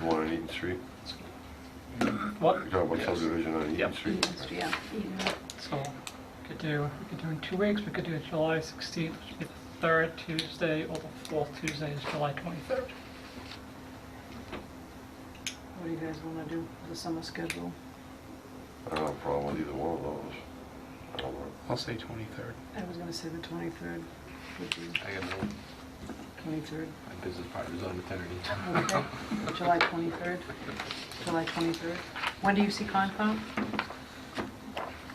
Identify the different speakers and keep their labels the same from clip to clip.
Speaker 1: The one on Eaton Street?
Speaker 2: What?
Speaker 1: You're talking about
Speaker 3: Yes.
Speaker 1: subdivision on Eaton
Speaker 3: Yep.
Speaker 1: Street?
Speaker 4: Yeah.
Speaker 2: So, we could do, we could do in two weeks, we could do July 16th, which would be the third Tuesday, or the fourth Tuesday is July 23rd.
Speaker 4: What do you guys want to do for the summer schedule?
Speaker 1: I don't have a problem with either one of those. I don't know.
Speaker 3: I'll say 23rd.
Speaker 4: I was going to say the 23rd would be
Speaker 3: I got no,
Speaker 4: 23rd.
Speaker 3: my business partner's on maternity.
Speaker 4: Okay, July 23rd, July 23rd. When do you see Concom?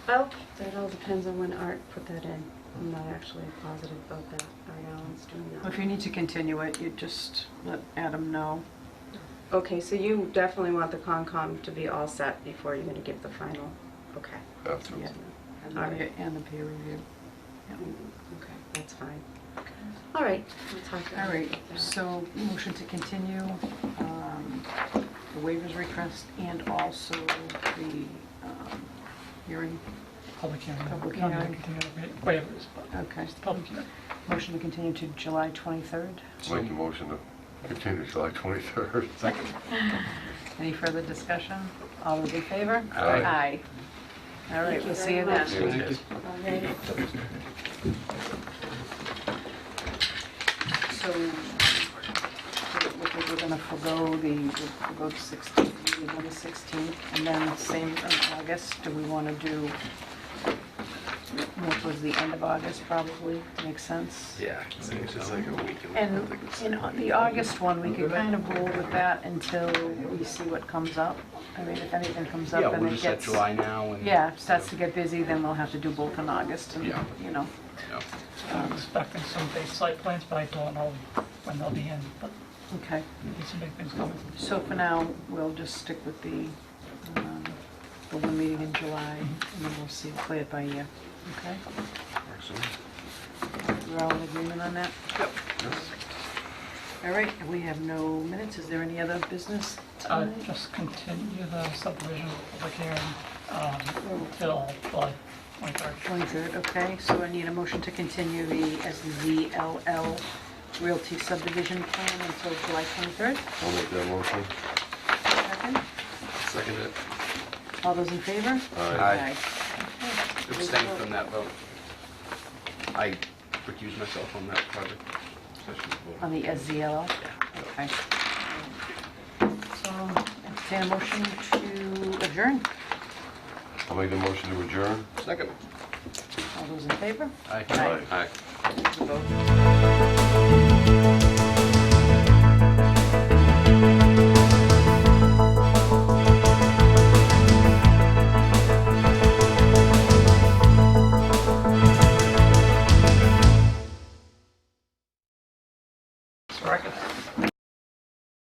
Speaker 5: Oh, that all depends on when Art put that in. I'm not actually positive about that. Art Allen's doing that.
Speaker 4: If you need to continue it, you just let Adam know.
Speaker 5: Okay, so you definitely want the Concom to be all set before you're gonna give the final, okay.
Speaker 1: Have to.
Speaker 4: Yeah. And the
Speaker 5: All right.
Speaker 4: and the peer review.
Speaker 5: Mm, Okay, that's fine. All right, we'll talk
Speaker 4: All
Speaker 5: about
Speaker 4: right,
Speaker 5: that.
Speaker 4: so motion to continue um, the waivers request and also the um, hearing.
Speaker 2: Public hearing.
Speaker 4: Public
Speaker 2: Not gonna
Speaker 4: hearing.
Speaker 2: continue to wait- Waivers, but
Speaker 4: Okay,
Speaker 2: it's the public hearing.
Speaker 4: motion to continue to July 23rd.
Speaker 1: Make a motion to continue July 23rd.
Speaker 3: Second.
Speaker 4: Any further discussion? All those in favor?
Speaker 1: Aye.
Speaker 4: Aye. All right,
Speaker 5: Thank you
Speaker 4: we'll see you
Speaker 5: very
Speaker 4: then.
Speaker 5: much.
Speaker 1: Yeah,
Speaker 3: Thank you.
Speaker 5: All right.
Speaker 4: So, we're gonna forego the, we'll go to 16, we go to 16, and then same in August, do we wanna do more towards the end of August, probably, makes sense?
Speaker 3: Yeah. I think so.
Speaker 4: And in au- the August one, we could kind of roll with that until we see what comes up. I mean, if anything comes
Speaker 3: Yeah,
Speaker 4: up and
Speaker 3: we'll
Speaker 4: it
Speaker 3: just set
Speaker 4: gets...
Speaker 3: July now and.
Speaker 4: Yeah, if starts to get busy, then we'll have to do both in August, and,
Speaker 3: Yeah.
Speaker 4: you know.
Speaker 3: Yeah.
Speaker 2: I'm expecting some big site plans, but I don't know when they'll be in, but
Speaker 4: Okay.
Speaker 2: there's some big things coming.
Speaker 4: So for now, we'll just stick with the, um, the one meeting in July, and then we'll see, play it by ear. Okay?
Speaker 3: Works for me.
Speaker 4: We're all in agreement on that? All right, and we have no minutes. Is there any other business
Speaker 2: Uh,
Speaker 4: tonight?
Speaker 2: Just continue the subdivision public hearing um, till July 23rd.
Speaker 4: 23rd, okay, so I need a motion to continue the SZLL Realty subdivision plan until July 23rd.
Speaker 1: I'll make that motion.
Speaker 4: Second,
Speaker 3: Second it.
Speaker 4: all those in favor?
Speaker 3: Aye.
Speaker 4: Okay.
Speaker 3: Abstain from that vote. I recuse myself on that project. Session vote.
Speaker 4: On the SZLL? Okay. So, entertain a motion to adjourn.
Speaker 1: I'll make the motion to adjourn.
Speaker 3: Second.
Speaker 4: All those in favor?
Speaker 3: Aye.
Speaker 4: Aye.
Speaker 3: Aye.
Speaker 4: Vote.
Speaker 2: So I could